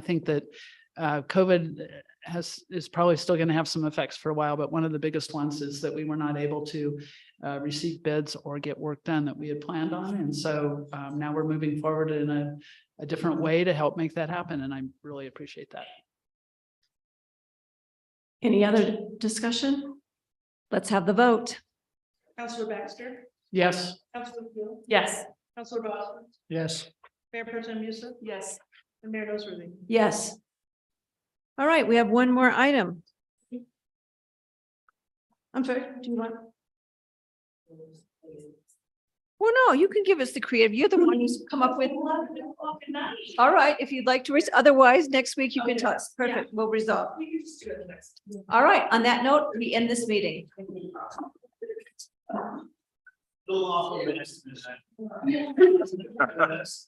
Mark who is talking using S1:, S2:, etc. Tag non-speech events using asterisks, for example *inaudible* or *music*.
S1: I think that uh, COVID has, is probably still going to have some effects for a while, but one of the biggest ones is that we were not able to uh, receive bids or get work done that we had planned on. And so um, now we're moving forward in a, a different way to help make that happen, and I really appreciate that.
S2: Any other discussion? Let's have the vote.
S3: Counselor Baxter?
S1: Yes.
S3: Counselor Gill?
S2: Yes.
S3: Counselor Bosser?
S1: Yes.
S3: Mayor Pro Tem Musa?
S2: Yes.
S3: And Mayor Noseworthy?
S2: Yes. All right, we have one more item. I'm sorry, do you want? Well, no, you can give us the creative. You're the one who's come up with. All right, if you'd like to, res- otherwise, next week you can
S3: Okay.
S2: tell us. Perfect, we'll resolve.
S3: We can just do it next.
S2: All right, on that note, we end this meeting.
S3: *laughs* Yes.